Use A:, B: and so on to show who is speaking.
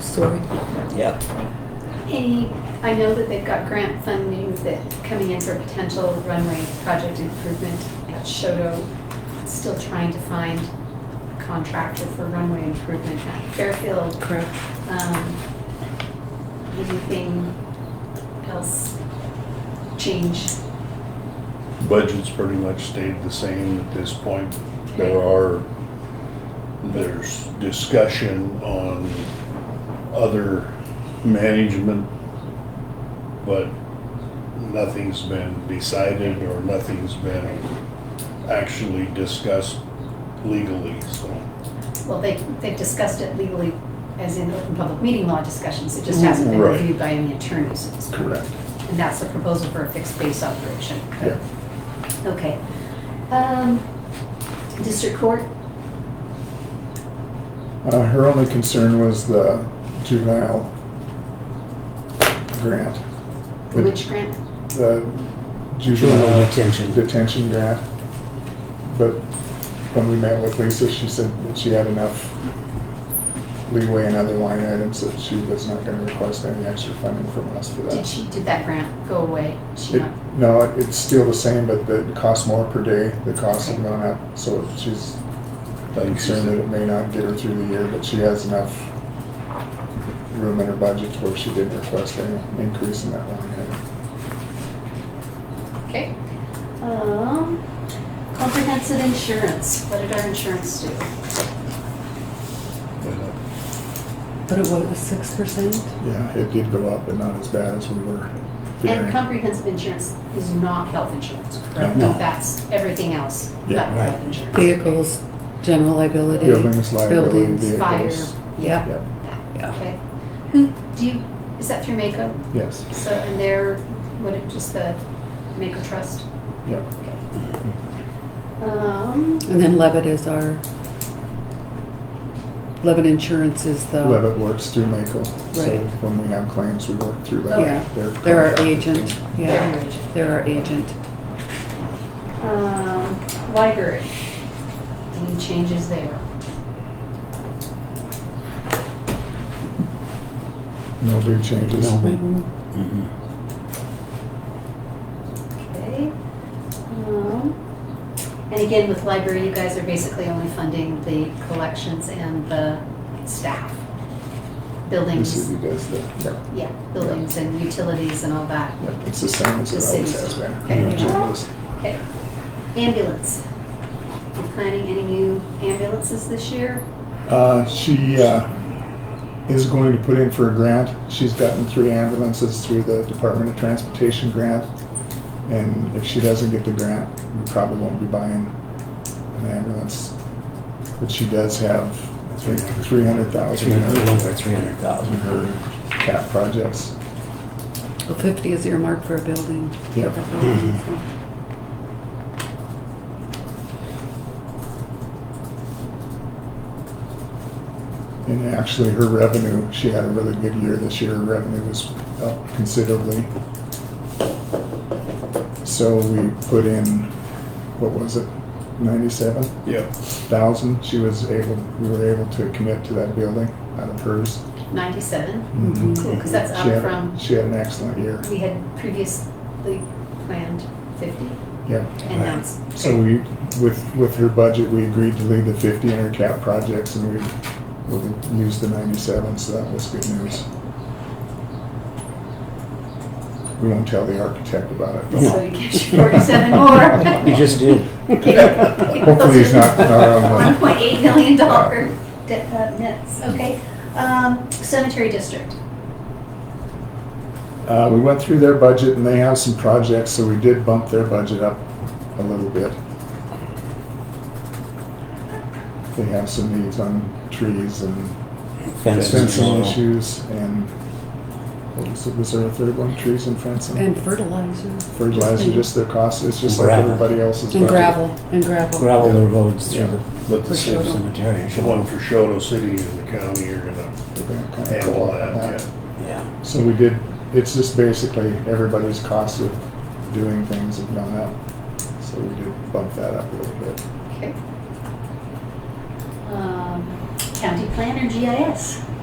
A: story.
B: Yep.
C: Hey, I know that they've got grant funding that coming in for potential runway project improvement at Shodo. Still trying to find a contractor for runway improvement at Fairfield.
A: Correct.
C: Um, Anything else change?
D: Budget's pretty much stayed the same at this point. There are, there's discussion on other management, but nothing's been decided or nothing's been actually discussed legally, so.
C: Well, they, they've discussed it legally as in open public meeting law discussions. It just hasn't been
D: Right.
C: reviewed by any attorneys at this point. And that's the proposal for a fixed base operation.
D: Yeah.
C: Okay. Um, District Court,
E: Uh, her only concern was the juvenile grant.
C: the witch grant,
E: The
B: Juvenile
E: juvenile
B: detention.
E: detention grant. But when we met with Lisa, she said that she had enough leeway in other line items that she was not gonna request any extra funding from us for
C: did
E: that.
C: she, did that grant go away? She
E: It-
C: not,
E: No, it- it's still the same, but the- it costs more per day. The costs have gone up, so she's concerned that it may not get her through the year, but she has enough room in her budget where she didn't request any increase in that line item.
C: okay. Um, comprehensive insurance, what did our insurance do?
A: But it was six percent?
E: Yeah, it did go up, but not as bad as we were
C: And
E: fearing.
C: comprehensive insurance is not health insurance, correct?
B: No.
C: That's everything else,
E: Yeah,
C: but
B: right.
C: health insurance.
A: Vehicles, general liability.
E: Buildings, liability,
A: buildings.
E: vehicles.
C: Fire.
A: Yep,
E: Yep,
A: yeah.
C: Okay. Who, do you, is that through Mako?
E: yes,
C: So, and they're, what, it- just the Mako Trust?
E: yep.
C: Um,
A: And then Levitt is our, Levitt Insurance is the.
E: Levitt works through Mako, so
A: Right.
E: when we have claims, we work through
A: Yeah,
E: Levitt. Their
A: they're our
E: contract.
A: agent,
C: They're
A: yeah,
C: our agent.
A: they're our agent.
C: Um, library. Any changes there?
E: No big changes.
B: No.
A: Mhm.
B: Mhm.
C: Okay. Um, and again, with library, you guys are basically only funding the collections and the staff.
E: The
C: Buildings,
E: city does the, yeah,
C: yeah, buildings and utilities and all that.
E: yeah, it's the same as
C: The
E: it always
C: city's-
E: has been.
C: okay.
E: No changes.
C: Okay. Ambulance. You planning any new ambulances this year?
E: Uh, she uh, is going to put in for a grant. She's gotten three ambulances through the Department of Transportation grant. And if she doesn't get the grant, we probably won't be buying an ambulance. But she does have, I think, three hundred thousand
B: Three hundred, a little over
E: in
B: three hundred thousand.
E: her cap projects.
A: Well, fifty is earmarked for a building.
E: Yeah. And actually, her revenue, she had a really good year this year. Her revenue was up considerably. So we put in, what was it, ninety-seven
D: Yeah,
E: thousand? She was able, we were able to commit to that building out of hers.
C: Ninety-seven?
A: Mhm.
C: Cool, because that's
E: She
C: up
E: had-
C: from,
E: She had an excellent year.
C: we had previously planned fifty,
E: Yeah.
C: and now it's.
E: So we, with, with her budget, we agreed to leave the fifty in her cap projects and we, we used the ninety-seven, so that was good news. We won't tell the architect about it.
C: So you get forty-seven more.
B: You just did.
E: Hopefully he's not,
C: One
E: um,
C: point eight million dollar uh, nets, okay. Um, Cemetery district,
E: uh, we went through their budget and they have some projects, so we did bump their budget up a little bit. They have some needs on trees and fencing
B: Fencing.
E: issues and, what was it, was there a third one, trees and fencing?
A: And fertilizer.
E: fertilizer, just their cost, it's just like
B: Gravel.
E: everybody else's.
A: And
E: budget.
A: gravel, and gravel.
B: Gravel the roads through the
D: but
A: For
D: the
A: sure.
B: cemetery.
D: the one for Shodo City and the county are gonna
E: They're gonna kinda
D: handle
E: pull
D: that, yeah.
B: Yeah.
E: So we did, it's just basically everybody's cost of doing things have gone up, so we did bump that up a little bit.
C: okay. Um, County planner GIS,